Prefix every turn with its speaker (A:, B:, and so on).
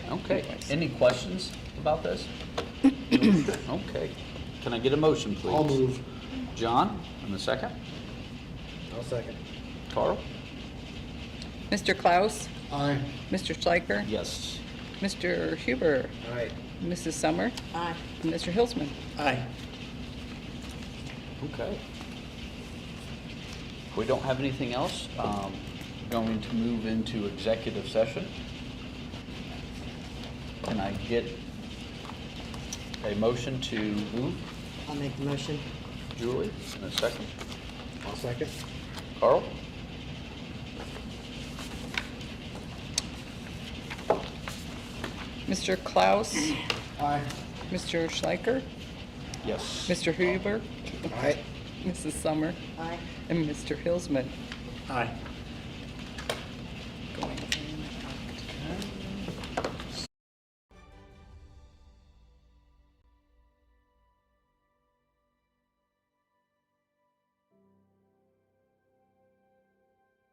A: Okay, any questions about this? Okay, can I get a motion, please?
B: I'll move.
A: John, in a second.
B: I'll second.
A: Carl?
C: Mr. Klaus,
B: Aye.
C: Mr. Schleicher,
A: Yes.
C: Mr. Huber,
B: Aye.
C: Mrs. Summer,
D: Aye.
C: and Mr. Hilsman.
B: Aye.
A: Okay. If we don't have anything else, um, going to move into executive session. Can I get a motion to move?
D: I'll make the motion.
A: Julie, in a second.
B: I'll second.
A: Carl?
C: Mr. Klaus,
B: Aye.
C: Mr. Schleicher,
A: Yes.
C: Mr. Huber,
B: Aye.
C: Mrs. Summer,
D: Aye.
C: and Mr. Hilsman.
B: Aye.